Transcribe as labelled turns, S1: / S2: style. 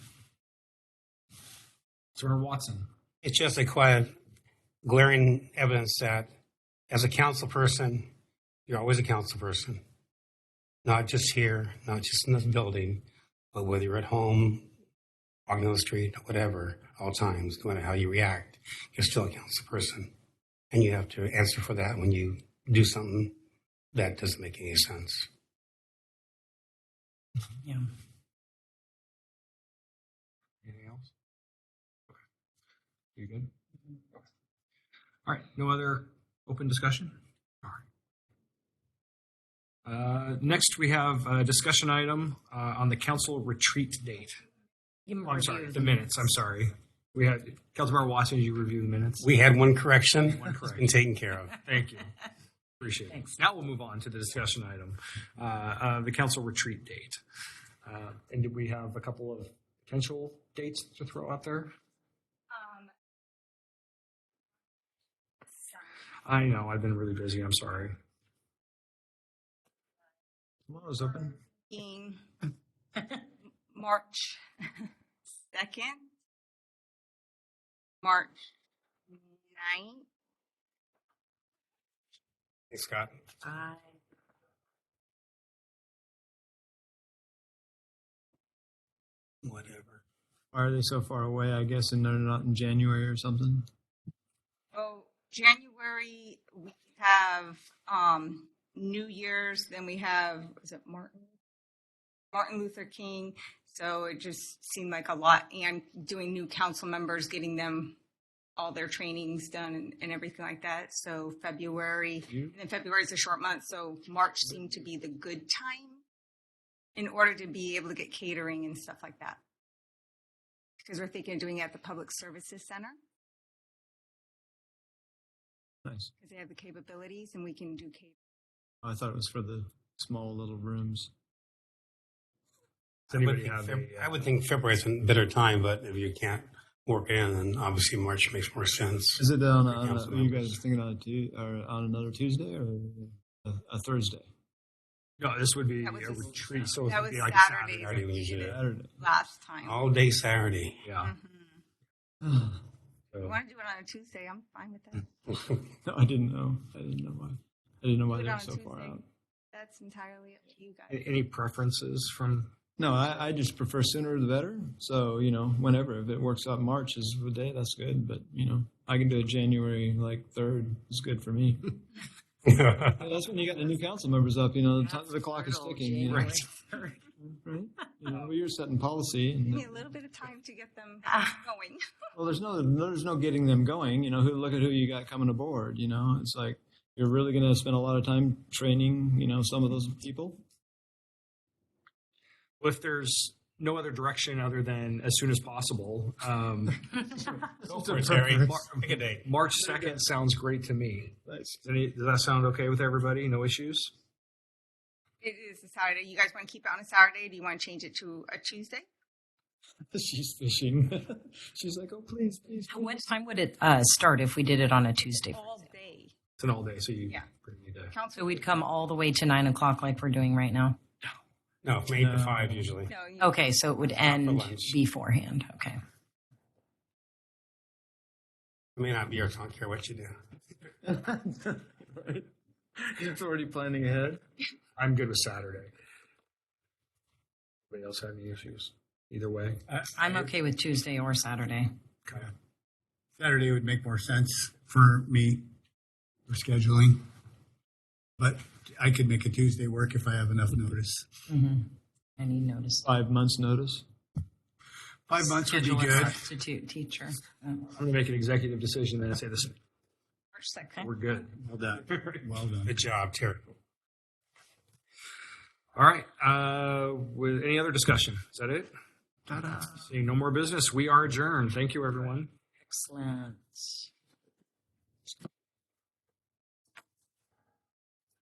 S1: Senator Watson.
S2: It's just a quiet, glaring evidence that as a council person, you're always a council person, not just here, not just in this building, but whether you're at home, walking on the street, whatever, all times, no matter how you react, you're still a council person. And you have to answer for that when you do something that doesn't make any sense.
S3: Yeah.
S1: Anything else? Okay. You good? Okay. All right, no other open discussion? All right. Uh, Next, we have a discussion item uh, on the council retreat date.
S3: You
S1: Oh, I'm sorry,
S3: review
S1: the minutes, I'm sorry. We had, Councilmember Watson, did you review the minutes?
S2: We had one correction,
S1: One
S2: it's
S1: correct.
S2: been taken care of.
S1: Thank you. Appreciate it.
S3: Thanks.
S1: Now we'll move on to the discussion item, uh, uh, the council retreat date. Uh, And did we have a couple of potential dates to throw out there?
S4: Um,
S1: I know, I've been really busy, I'm sorry.
S5: Tomorrow's open.
S4: being March second, March ninth.
S2: Thanks, Scott.
S3: I-
S2: Whatever.
S5: Why are they so far away? I guess, and they're not in January or something.
S4: Oh, January, we have, um, New Year's, then we have, is it Martin? Martin Luther King. So it just seemed like a lot and doing new council members, getting them all their trainings done and, and everything like that. So February,
S1: You-
S4: and then February is a short month. So March seemed to be the good time in order to be able to get catering and stuff like that. Because we're thinking of doing it at the Public Services Center.
S5: Nice. Oh,
S4: because they have the capabilities and we can do cap-
S5: I thought it was for the small little rooms.
S2: I would,
S1: Anybody
S2: think
S1: have
S2: Feb-
S1: a,
S2: I
S1: uh,
S2: would think February's a better time, but if you can't work it in, then obviously March makes more sense.
S5: Is it on? A,
S2: For
S5: on a-
S2: council
S5: are you
S2: members.
S5: guys thinking on a tu- or on another Tuesday or a, a Thursday?
S1: No, this would be a
S4: That was a-
S1: retreat, so it
S4: that
S1: would be
S4: was
S1: like
S4: Saturday.
S1: Saturday.
S2: I already lose it.
S5: Saturday.
S4: last time.
S2: All day Saturday.
S1: Yeah.
S4: Mhm.
S5: no,
S4: If you
S1: so-
S4: want to do it on a Tuesday, I'm fine with that.
S5: I didn't know. I didn't know why. I didn't know why
S4: Do it
S5: they're
S4: on
S5: so far
S4: Tuesday.
S5: out.
S4: That's entirely up to you guys.
S1: A- Any preferences from,
S5: No, I, I just prefer sooner the better. So you know, whenever if it works out, March is the day. That's good. But you know, I can do it January like third. is good for me. Yeah, that's when you got the new council members up. You know, the, time,
S3: That's
S5: the clock is
S3: brutal,
S5: ticking. You know,
S3: January
S1: Right.
S3: 3rd.
S5: right? You know, well, you're setting policy.
S4: Give
S5: And,
S4: me a little bit of time to get them
S3: Ah.
S4: going.
S5: well, there's no there's no getting them going. You know, who look at who you got coming aboard. You know, it's like you're really going to spend a lot of time training. You know, some of those people.
S1: well, if there's no other direction other than as soon as possible, um,
S2: Go for it, Terry.
S1: Mar-
S2: Pick a date.
S1: March 2nd sounds great to me.
S5: Nice.
S1: Does any- does that sound okay with everybody? No issues?
S4: It is a Saturday. You guys want to keep it on a Saturday? Do you want to change it to a Tuesday?
S5: She's fishing. She's like, oh please, please. please.
S3: What time would it uh, start if we did it on a Tuesday?
S4: All day.
S1: It's an all day, so you
S4: Yeah.
S1: pretty need to.
S4: Council.
S3: So we'd come all the way to nine o'clock like we're doing right now?
S2: No, from eight to
S5: No.
S2: five usually.
S4: No, you,
S3: Okay, so it would end
S2: lunch.
S3: beforehand, okay.
S2: I may not be here, so I don't care what you do.
S5: right. It's already planning ahead.
S1: I'm good with Saturday. Anybody else have any issues? Either way?
S3: I'm okay with Tuesday or Saturday.
S6: Saturday would make more sense for me for scheduling. But I could make a Tuesday work if I have enough notice.
S5: Mm-hmm.
S3: Mhm. I need notice.
S5: Five months notice.
S6: Five months would be
S3: Schedule a
S6: good.
S3: Substitute teacher.
S1: I'm going to make an executive decision then and say this,
S4: March second.
S1: we're good.
S6: Well done. Well done.
S2: Good job, Terry.
S1: All right. Uh, with any other discussion? Is that it?
S6: Ta-da.
S1: Seeing no more business, we are adjourned. Thank you, everyone.
S3: Excellent.